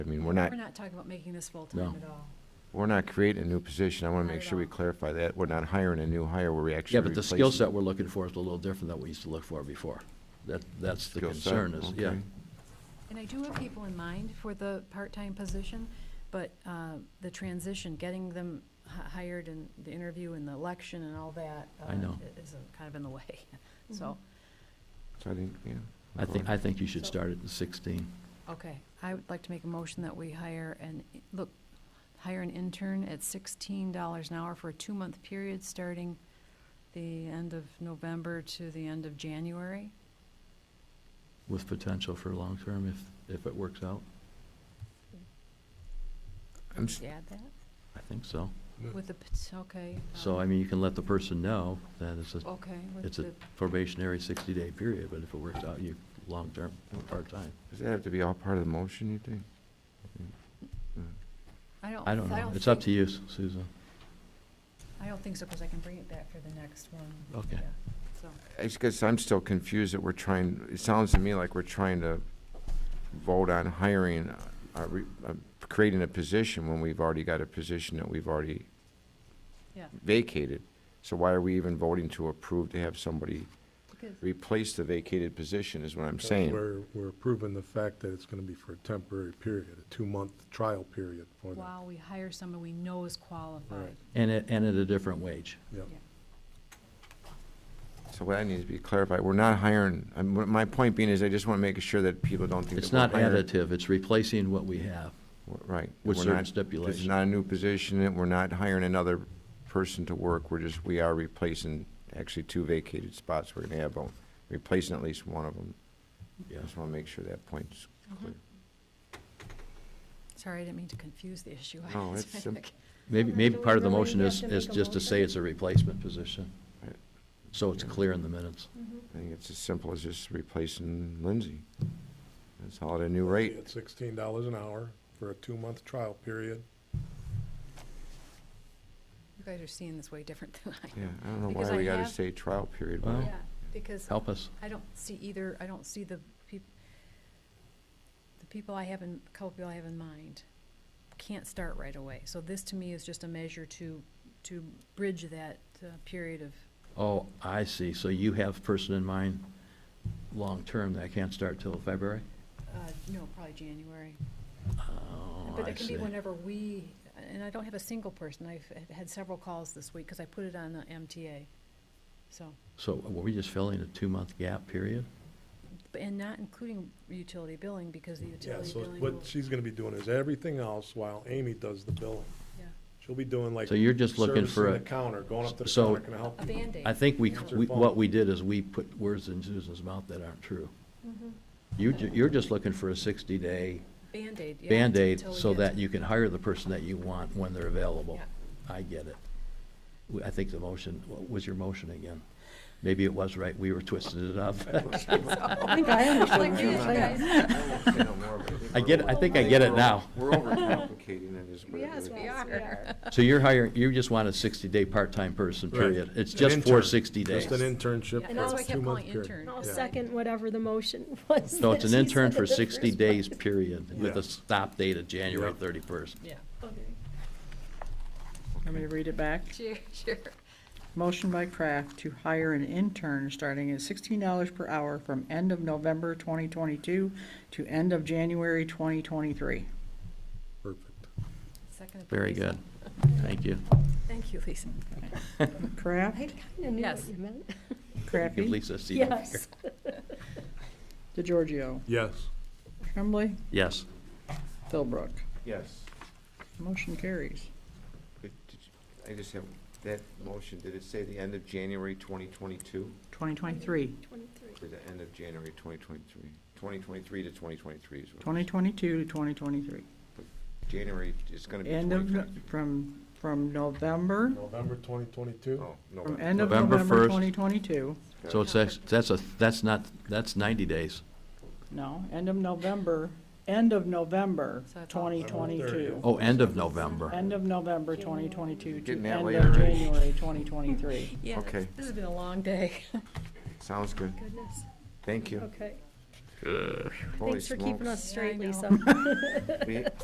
I mean, we're not, We're not talking about making this full-time at all. we're not creating a new position. I want Not to make at sure we all. clarify that. We're not hiring a new hire, we're actually Yeah, but the skill replacing- set we're looking for is a little different than we used to look for before. That, that's the Skill set, concern is, yeah. okay. And I do have people in mind for the part-time position, but uh, the transition, getting them h- hired and the interview and the election and all that I uh, know. is uh, kind of in the way, so, So I think, yeah. I think, I think you should So- start at the sixteen. okay. I would like to make a motion that we hire an, look, hire an intern at sixteen dollars an hour for a two-month period, starting the end of November to the end of January. with potential for long-term if, if it works out. I'm s- Did you add that? I think so. With the, pot- okay. So, um, I mean, you can let the person know that it's a, Okay. with it's a the- probationary sixty-day period, but if it works out, you, long-term, or part-time. Does that have to be all part of the motion, you think? I don't. Oh, I don't know. It's up think- to you, Susan. I don't think so, because I can bring it back for the next one. Okay. Yeah, So, It's because I'm still confused that we're trying, it sounds to me like we're trying to vote on hiring, uh, uh, re- uh, creating a position when we've already got a position that we've already yeah, vacated. So why are we even voting to approve to have somebody because, replace the vacated position is what I'm That's saying. We're, we're approving the fact that it's gonna be for a temporary period, a two-month trial period for them. wow, we hire someone we know is qualified. Right. And it, and at a different wage. Yep. Yeah. So that needs to be clarified. We're not hiring, I mean, my point being is I just want to make sure that people don't think It's that not we're hiring- additive, it's replacing what we have. Right. with We're certain not- This stipulations. is not a new position, and we're not hiring another person to work. We're just, we are replacing actually two vacated spots. We're going to have, uh, replacing at least one of them. I Yes. just want to make sure that point's clear. Mm-hmm. Sorry, I didn't mean to confuse the issue. No, it's sim- Maybe, Well, maybe do part we of the really motion have is, to is make a just to say motion? it's a replacement position. Right. So it's clear in the minutes. I think it's as simple as just replacing Lindsay. That's all at a new rate. At sixteen dollars an hour for a two-month trial period. You guys are seeing this way different than I Yeah, am. I don't know Because why I we gotta have- say trial period, Well- but Yeah, because Help us. I don't see either, I don't see the peop, the people I have in, couple people I have in mind can't start right away. So this to me is just a measure to, to bridge that uh, period of Oh, I see. So you have a person in mind, long-term, that can't start till February? Uh, no, probably January. Oh, But I it can see. be whenever we, and I don't have a single person, I've had- had several calls this week, because I put it on the MTA. So, So were we just filling a two-month gap period? but- and not including utility billing, because the Yeah, utility so billing what will, she's gonna be doing is everything else while Amy does the billing. yeah, She'll be doing like. So you're just looking for servicing a- the counter, going up to the so- counter, can I help a you? Band-Aid. I think we, Answer we- phone. what we did is we put words in Susan's mouth that aren't true. You're, ju- you're just looking for a sixty-day Band-Aid, yeah. Band-Aid until we so get- that you can hire the person that you want when they're available. Yeah. I get it. W- I think the motion, what was your motion again? Maybe it was right, we were twisting it up. I think I Like you guys. I get, I think I get it now. We're overcomplicating it is what it Yes, really we is. are. So you're hiring, you just want a sixty-day part-time person, Right. period. It's An just for intern. sixty days. Just an And internship for that's a why I kept two-month calling period. intern. I'll because I- second whatever the motion was. So it's an that she intern said for the sixty first days, one. period, with Yeah. a stop date of January Yeah. thirty-first. Yeah, Okay. Let me to read it back. sure, sure. Motion by Kraft to hire an intern starting at sixteen dollars per hour from end of November twenty twenty-two to end of January twenty twenty-three. Perfect. Second. Very Lisa. good. Thank you. Thank you, Lisa. I Kraft, kinda knew Yes. what you meant. Give Crafty, Lisa a seat over here. Yes. DeGiorgio, Yes. Tremblay, Yes. Philbrook. Yes. Motion carries. If- did you- I just have, that motion, did it say the end of January twenty twenty-two? Twenty twenty-three, Twenty-three. Or the end of January twenty twenty-three? Twenty twenty-three to twenty twenty-three is what. it twenty is. twenty-two to twenty twenty-three. January, it's gonna be End twenty of, twenty-three. from, from November, November twenty twenty-two? Oh, from November. end of November November 1st. twenty twenty-two. So it's, ex- that's a, that's not, that's ninety days. No, end of November, end of November So it's all- twenty twenty-two. Oh, end of November. End of November 2022 to Getting end that of late already. January 2023. Yeah, Okay. this has been a long day. Sounds good. Goodness, Thank you. okay. Holy Thanks for keeping smokes. us straight, Yeah, I know. Lisa. We-